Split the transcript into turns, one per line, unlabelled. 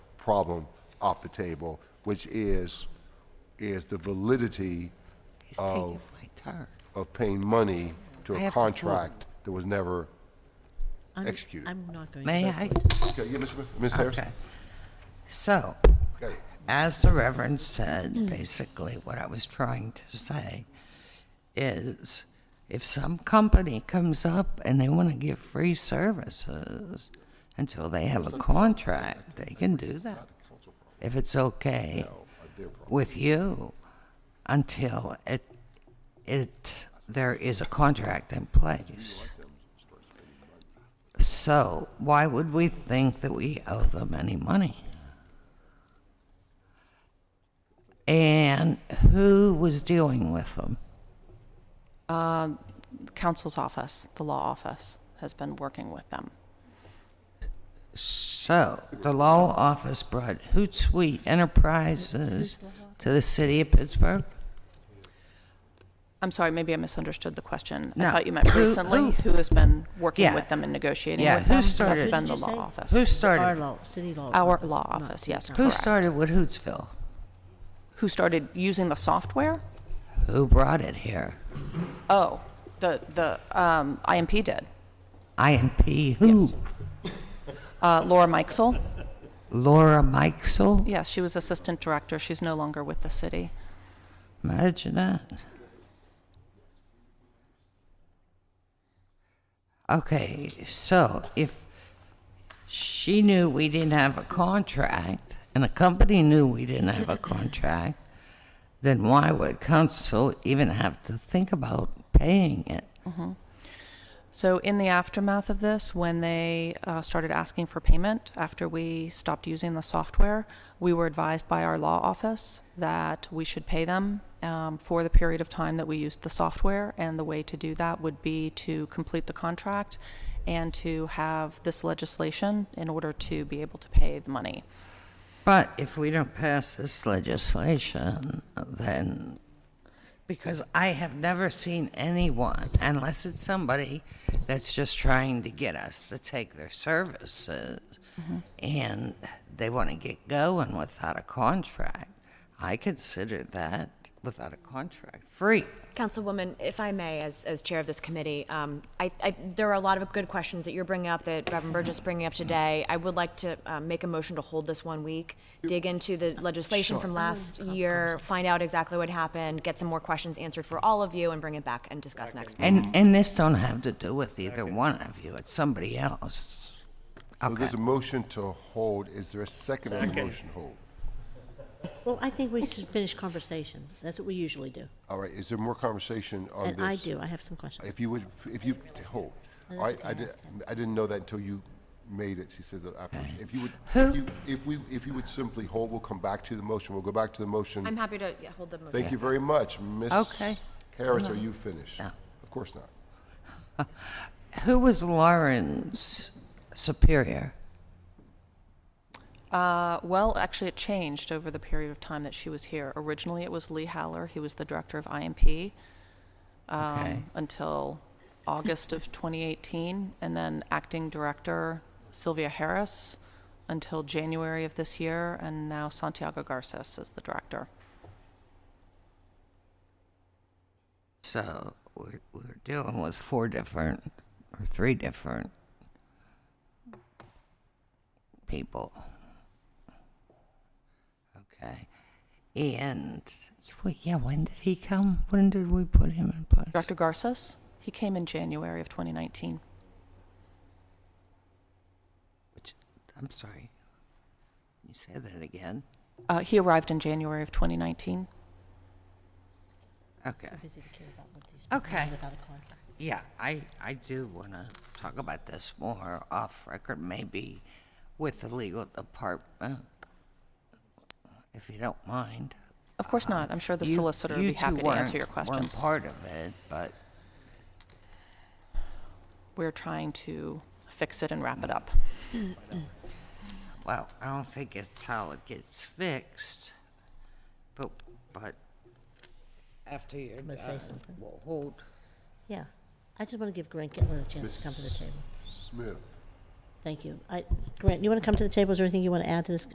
problem off the table, which is, is the validity
He's taking my turn.
of paying money to
I
a
have to vote.
contract that was never
I'm-
executed.
I'm not going to.
May
vote
I?
for it.
Okay, yeah, Ms. Smith- Ms. Harris?
Okay. So,
Okay.
as the Reverend said, basically what I was trying to say is if some company comes up and they want to give free services until they have a contract, they can do that. If it's okay with you until it, it, there is a contract in place. So why would we think that we owe them any money? And who was dealing with them?
counsel's office, the law office, has been working with them.
So the law office brought Hootsuite Enterprises to the city of Pittsburgh?
I'm sorry, maybe I misunderstood the question.
No.
I thought you meant
Who-
recently,
who-
who has been working
Yeah.
with them and negotiating
Yeah,
with
who
them?
started-
That's been the
Did you say?
law office.
Who
Our
started,
law, city law.
Our law
not
office,
the
yes,
town.
who
correct.
started with Hootsville?
Who started using the software?
Who brought it here?
Oh, the, the um, IMP did.
INP, who?
Uh, Laura Mikesell,
Laura Mikesell?
yes, she was assistant director. She's no longer with the city.
Imagine that. Okay, so if she knew we didn't have a contract and the company knew we didn't have a contract, then why would council even have to think about paying it?
So in the aftermath of this, when they uh, started asking for payment after we stopped using the software, we were advised by our law office that we should pay them um, for the period of time that we used the software, and the way to do that would be to complete the contract and to have this legislation in order to be able to pay the money.
But if we don't pass this legislation, then, because I have never seen anyone, unless it's somebody that's just trying to get us to take their services, and they want to get going without a contract, I consider that, without a contract, free.
Councilwoman, if I may, as, as chair of this committee, um, I, I, there are a lot of good questions that you're bringing up, that Reverend Burgess is bringing up today. I would like to, um, make a motion to hold this one week, dig into the legislation from last year, find out exactly what happened, get some more questions answered for all of you, and bring it back and discuss next month.
And, and this don't have to do with either one of you, it's somebody else.
So there's a motion to hold. Is there a second on the motion to hold?
Well, I think we should finish conversation. That's what we usually do.
All right, is there more conversation on Oh, this?
And I do, I have some questions.
If you would, if you, hold. All right, I did, I didn't know that until you made it, she says that after. If you would, if you, if we, if you would simply hold, we'll come back to the motion. We'll go back to the motion.
I'm happy to, yeah, hold the motion.
Thank you very much. Ms.
Okay.
Harris, are you finished?
No.
Of course not.
Who was Lauren's superior?
Uh, well, actually, it changed over the period of time that she was here. Originally, it was Lee Haller. He was the director of IMP um,
Okay.
until August of 2018, and then acting director Sylvia Harris until January of this year, and now Santiago Garces is the director.
So we're, we're dealing with four different or three different people. Okay. And well, yeah, when did he come? When did we put him in place?
Director Garces, he came in January of 2019.
Which, I'm sorry. You say that again?
Uh, he arrived in January of 2019.
Okay.
Busy to care about what these people
Okay.
do without a contract.
Yeah, I, I do want to talk about this more off record, maybe with the legal department, if you don't mind.
Of course not. I'm sure the
You-
solicitor would
you
be
two
happy to answer
weren't-
your
Weren't
questions.
part of it, but
We're trying to fix it and wrap it up.
well, I don't think it's how it gets fixed. But but after you're
gonna say
done,
something.
we'll hold.
Yeah. I just want to give Grant Gitlin a chance to come to the table.
Smith?
Thank you. I, Grant, you want to come to the table? Is there anything you want to add to this